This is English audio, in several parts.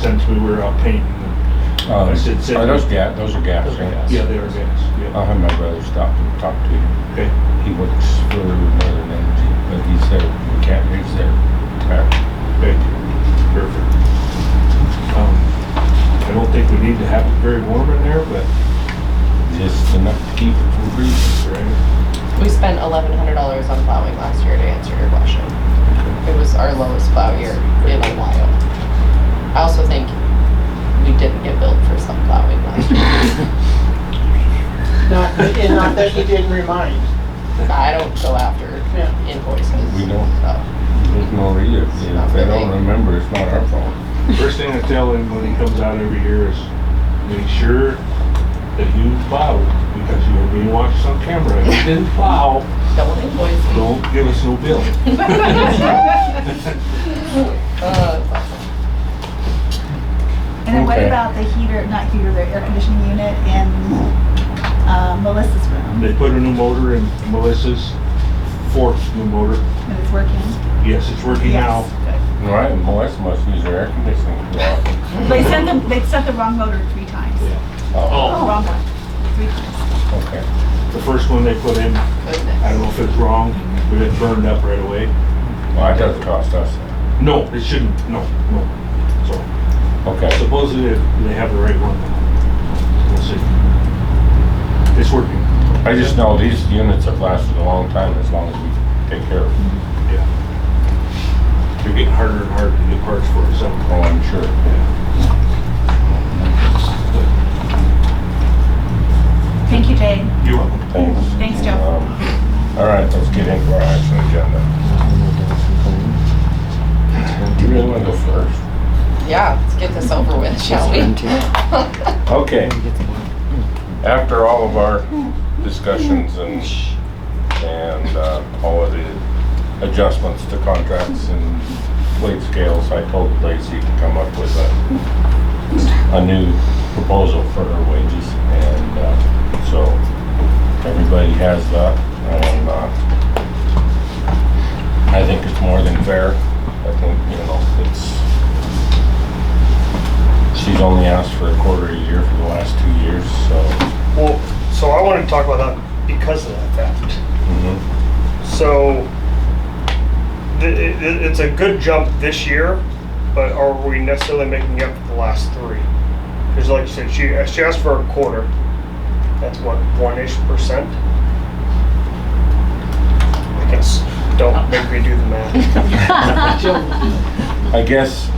since we were out painting. Oh, I said, said- Are those gas, those are gas, right? Yeah, they are gas, I'll yeah. have my brother stop and talk to you. Okay, He works for Northern Energy, but he said we can't use their tire. okay, perfect. Um, I don't think we need to have it very warm in there, but, Just enough to keep it from freezing. right, We spent eleven hundred dollars on plowing last year to answer your question. It was our lowest plow year in a while. I also think we didn't get billed for some plowing last year. Not, and not that he didn't remind. I don't go after Yeah. invoices. We don't. so. There's no reason. If they don't remember, it's not our fault. first thing I tell him when he comes out every year is, make sure that you plow, because you are being watched on camera. If you didn't plow, Don't invoice me. don't give us no bill. Uh, it's awesome. And then what Okay. about the heater, not heater, the air conditioning unit in uh, Melissa's room? They put a new motor in Melissa's, fourth new motor. And it's working? Yes, it's working now. Yes, good. All Right, Melissa must use her air conditioning. too often. They sent them, they sent the wrong motor three times. Oh, Oh. Wrong one, three times. okay. The first one they put in, I don't know Goodness. if it's wrong, but it burned up right away. Well, that does cost us. No, it shouldn't, no, no. So Okay, supposedly they have the right one. We'll see. It's working, I just know these units have lasted a long time as long as we take care of them. yeah. They're getting harder and harder to get parts for it, so. Oh, I'm sure. yeah. Thank you, Jane. You're welcome. Thanks. Thanks, Joe. Um, All right, let's get into our action agenda. Do you really want to go first? Yeah, let's get this over with, shall we? Okay. After all of our discussions and, and uh, all of the adjustments to contracts and weight scales, I told Lacey to come up with a, a new proposal for her wages. And uh, so everybody has that. And uh, I think it's more than fair. I think, you know, it's, She's only asked for a quarter a year for the last two years, so. Well, so I wanted to talk about that because of that fact. mhm. So th- it, it- it's a good jump this year, but are we necessarily making up for the last three? Because like you said, she, she asked for a quarter. That's what, one-ish percent? I guess, don't make me do the math. I guess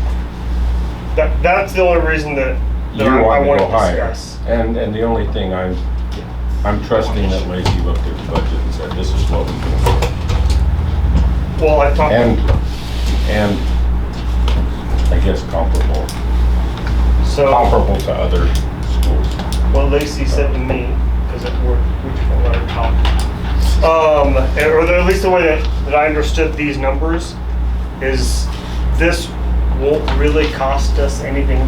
That, that's the only reason that, you that I I want wanted to to go higher. discuss. And, and the only thing I'm, I'm trusting that Lacey looked at the budget and said, this is what we can do. Well, I talked. And, and I guess comparable, So. comparable to other schools. Well, Lacey said to me, because it worked, we can let her talk. Um, or at least the way that, that I understood these numbers is this won't really cost us anything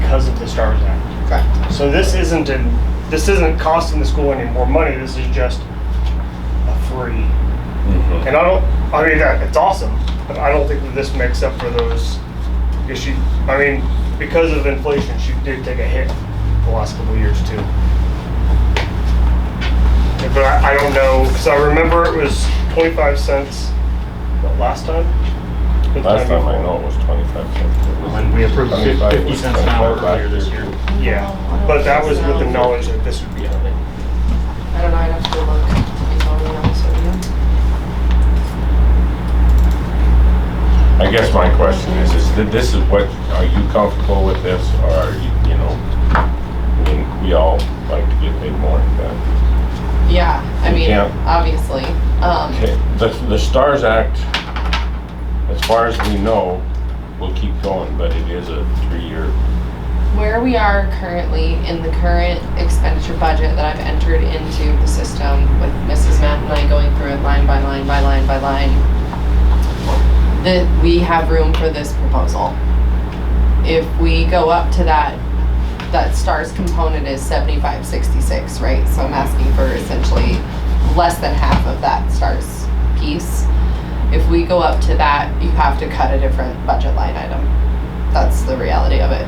because of the STARS Act. Correct. So this isn't in, this isn't costing the school any more money, this is just a free. Mhm. And I don't, I mean, that, it's awesome, but I don't think that this makes up for those issues. I mean, because of inflation, she did take a hit the last couple of years too. Yeah, But I, I don't know, because I remember it was twenty-five cents, what, last time? Or the Last time I before? know it was twenty-five cents. And we approved fif- 25 fifty was cents an hour 25 earlier this year. Yeah, but that was with the knowledge that this would be coming. I don't know, I'd have to look, to be totally honest with you. I guess my question is, is that this is what, are you comfortable with this, or are you, you know, I mean, we all like to get paid more, but. Yeah, I mean, Yeah. obviously, um, Okay, the, the STARS Act, as far as we know, will keep going, but it is a three-year. where we are currently in the current expenditure budget that I've entered into the system with Mrs. Matt and I going through it line by line by line by line, that we have room for this proposal. If we go up to that, that STARS component is seventy-five sixty-six, right? So I'm asking for essentially less than half of that STARS piece. If we go up to that, you have to cut a different budget line item. That's the reality of it.